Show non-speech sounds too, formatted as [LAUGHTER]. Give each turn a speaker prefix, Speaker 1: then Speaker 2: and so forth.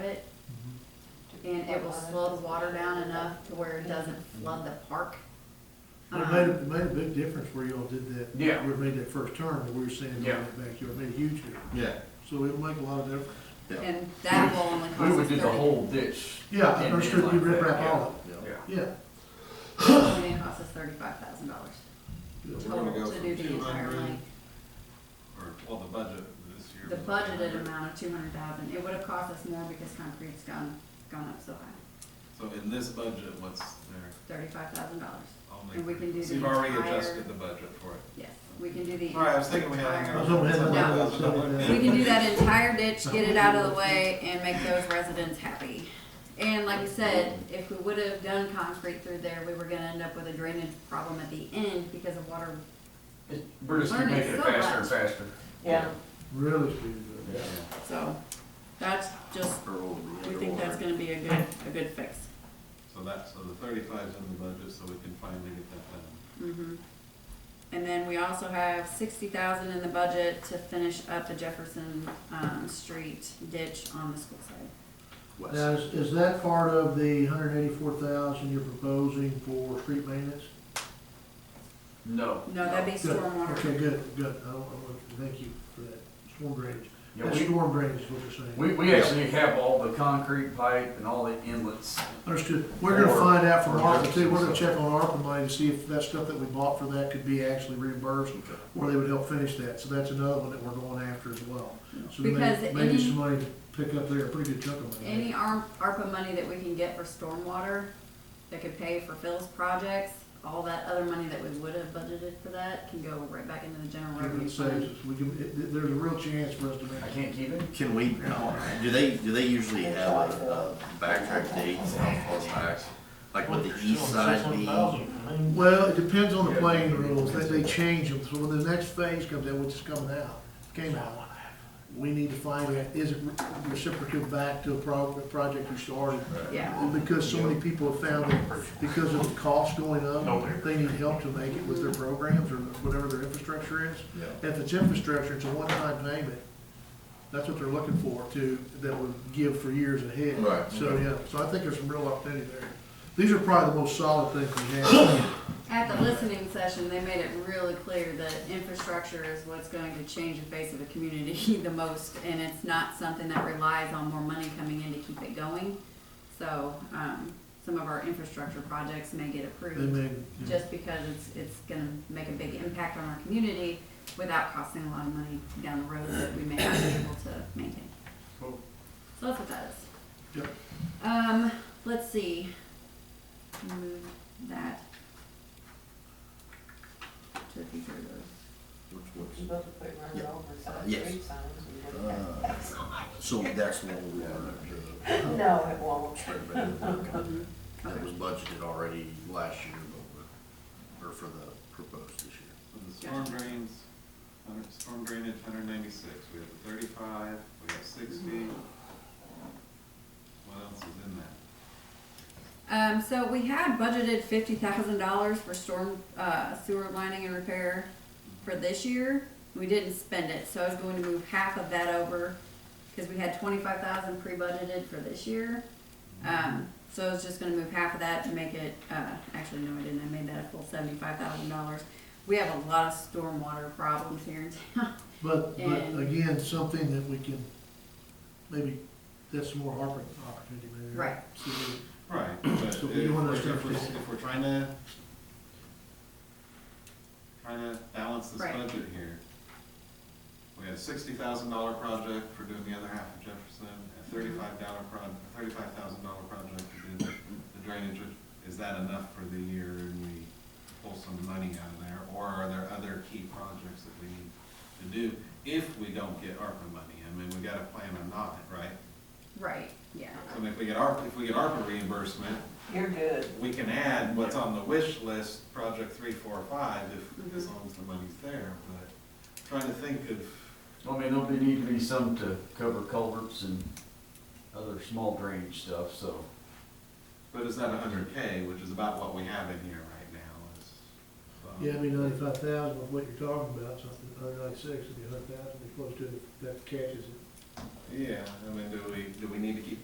Speaker 1: and it will slow the water down enough to where it doesn't flood the park. Um,
Speaker 2: Well, It made, it made a big difference where y'all did that.
Speaker 3: Yeah.
Speaker 2: Where it made that first turn, where we were saying in the
Speaker 3: Yeah.
Speaker 2: backyard, it made a huge difference.
Speaker 4: Yeah,
Speaker 2: So it'll make a lot of difference.
Speaker 1: And that will only
Speaker 3: We
Speaker 1: cost
Speaker 3: would
Speaker 1: us
Speaker 3: do the
Speaker 1: thirty,
Speaker 3: whole ditch.
Speaker 2: Yeah,
Speaker 3: And
Speaker 2: I
Speaker 3: then
Speaker 2: understood you
Speaker 3: like
Speaker 2: rip
Speaker 3: that,
Speaker 2: wrap
Speaker 3: yeah.
Speaker 2: all of
Speaker 4: yeah.
Speaker 3: Yeah.
Speaker 2: it, yeah.
Speaker 1: only cost us thirty-five thousand dollars
Speaker 2: Yeah.
Speaker 5: We're
Speaker 1: total
Speaker 5: gonna go
Speaker 1: to
Speaker 5: from
Speaker 1: do the entire
Speaker 5: 200
Speaker 1: lane.
Speaker 5: Or, well, the budget this year.
Speaker 1: The
Speaker 5: was
Speaker 1: budgeted
Speaker 5: 200.
Speaker 1: amount of two hundred thousand, it would have cost us more because concrete's gone, gone up so high,
Speaker 5: So in this budget, what's there?
Speaker 1: thirty-five thousand dollars.
Speaker 5: Only-
Speaker 1: And we can do
Speaker 5: So
Speaker 1: the
Speaker 5: you've already
Speaker 1: entire-
Speaker 5: adjusted the budget for it.
Speaker 1: Yes, we can do the.
Speaker 5: All right, I was thinking we had.
Speaker 1: entire-
Speaker 2: I was hoping we had
Speaker 5: something
Speaker 1: No.
Speaker 5: else, but that
Speaker 1: We
Speaker 5: wouldn't be-
Speaker 1: can do that entire ditch, get it out of the way, and make those residents happy. And like I said, if we would have done concrete through there, we were gonna end up with a drainage problem at the end because of water.
Speaker 3: It- We're just
Speaker 1: Learn it
Speaker 3: making it
Speaker 1: so
Speaker 3: faster and
Speaker 1: much.
Speaker 3: faster.
Speaker 6: Yeah,
Speaker 2: Really speeded up.
Speaker 1: So that's just, we think that's gonna be a good, a good fix.
Speaker 5: So that, so the thirty-five's in the budget, so we can finally get that
Speaker 1: Mhm.
Speaker 5: done.
Speaker 1: And then we also have sixty thousand in the budget to finish up the Jefferson, um, Street ditch on the school side.
Speaker 2: Now, is, is that part of the hundred eighty-four thousand you're proposing for street maintenance?
Speaker 3: No.
Speaker 1: No, that'd be
Speaker 2: Good.
Speaker 1: stormwater.
Speaker 2: Okay, good, good. I don't, I don't- thank you for that. Storm drainage.
Speaker 3: Yeah,
Speaker 2: That
Speaker 3: we-
Speaker 2: storm drainage is what you're saying.
Speaker 3: We, we actually have all the concrete pipe and all the inlets.
Speaker 2: Understood. We're gonna
Speaker 3: Or-
Speaker 2: find out from
Speaker 3: or
Speaker 2: ARPA too. We're gonna
Speaker 3: Jefferson.
Speaker 2: check on ARPA money to see if that stuff that we bought for that could be actually reimbursed or they would help finish that. So that's another one that we're going after as well. So
Speaker 1: Because
Speaker 2: may- maybe
Speaker 1: any-
Speaker 2: some money to pick up there, a pretty good chunk of money.
Speaker 1: Any ARM, ARPA money that we can get for stormwater, that could pay for Phil's projects, all that other money that we would have budgeted for that can go right back into the general
Speaker 2: If
Speaker 1: revenue
Speaker 2: it saves
Speaker 1: fund.
Speaker 2: us, we can, it- there's a real chance for us to make.
Speaker 3: I can't keep it.
Speaker 4: Can we, do they, do they usually have a, a backtrack date on far back? Like would the east side be?
Speaker 2: Well, it depends on the playing rules, that they change them, so when the next phase comes in, which is coming out, came out, we need to find out, is it reciprocal back to a pro- a project you started?
Speaker 1: Yeah,
Speaker 2: And Because so many people have found that because of the cost going up, they need help to make it with their programs or whatever their infrastructure is.
Speaker 4: Yeah.
Speaker 2: If it's infrastructure, it's a one-time payment, that's what they're looking for to, that would give for years ahead.
Speaker 4: Right.
Speaker 2: So, yeah, so I think there's some real opportunity there. These are probably the most solid things we have.
Speaker 1: at the listening session, they made it really clear that infrastructure is what's going to change the face of the community [LAUGHS] the most, and it's not something that relies on more money coming in to keep it going. So, um, some of our infrastructure projects may get approved.
Speaker 2: They may, you know,
Speaker 1: just because it's, it's gonna make a big impact on our community without costing a lot of money down the road that we may not be able to maintain.
Speaker 3: Cool.
Speaker 1: So that's what that is.
Speaker 2: Yep.
Speaker 1: Um, let's see, move that to the future of those.
Speaker 6: supposed to put
Speaker 4: Yeah.
Speaker 6: running over
Speaker 4: Uh,
Speaker 6: some
Speaker 4: yes.
Speaker 6: street signs. and work
Speaker 4: Uh, So that's what we were,
Speaker 6: that. No, it won't.
Speaker 4: that was budgeted already last year, but, we're- or for the proposed this year.
Speaker 5: So the storm drains, hundred, storm drainage, hundred ninety-six, we have the thirty-five, we have sixty.
Speaker 1: Mm-hmm.
Speaker 5: What else is in that?
Speaker 1: Um, so we had budgeted fifty thousand dollars for storm, uh, sewer lining and repair for this year. We didn't spend it, so I was going to move half of that over, cause we had twenty-five thousand pre-budgeted for this year. Um, so I was just gonna move half of that to make it, uh, actually, no, I didn't, I made that a full seventy-five thousand dollars. We have a lot of stormwater problems here in town.
Speaker 2: But,
Speaker 1: And-
Speaker 2: but again, something that we can, maybe, that's more Harper opportunity maybe.
Speaker 1: Right.
Speaker 2: See what-
Speaker 5: Right,
Speaker 2: [CLEARS THROAT]
Speaker 5: but if
Speaker 2: So
Speaker 5: we're,
Speaker 2: we don't understand
Speaker 5: if we're,
Speaker 2: for-
Speaker 5: if we're trying to, trying to balance this
Speaker 1: Right.
Speaker 5: budget here, we had a sixty thousand dollar project for doing the other half of Jefferson, a thirty-five dollar proj, thirty-five thousand dollar project to do the drainage. Is that enough for the year and we pull some money out of there, or are there other key projects that we need to do if we don't get ARPA money? I mean, we gotta plan on not, right?
Speaker 1: Right, yeah.
Speaker 5: So I mean, if we get ARPA, if we get ARPA reimbursement,
Speaker 6: You're good.
Speaker 5: we can add what's on the wish list, project three, four, five, if, as long as the money's there, but trying to think of,
Speaker 3: I mean, there'll be, need to be some to cover culverts and other small drainage stuff, so.
Speaker 5: but is that a hundred K, which is about what we have in here right now, is. um,
Speaker 2: Yeah, I mean, ninety-five thousand with what you're talking about, something, hundred ninety-six, it'd be a hundred thousand, be close to, it if that catches it.
Speaker 5: Yeah, I mean, do we, do we need to keep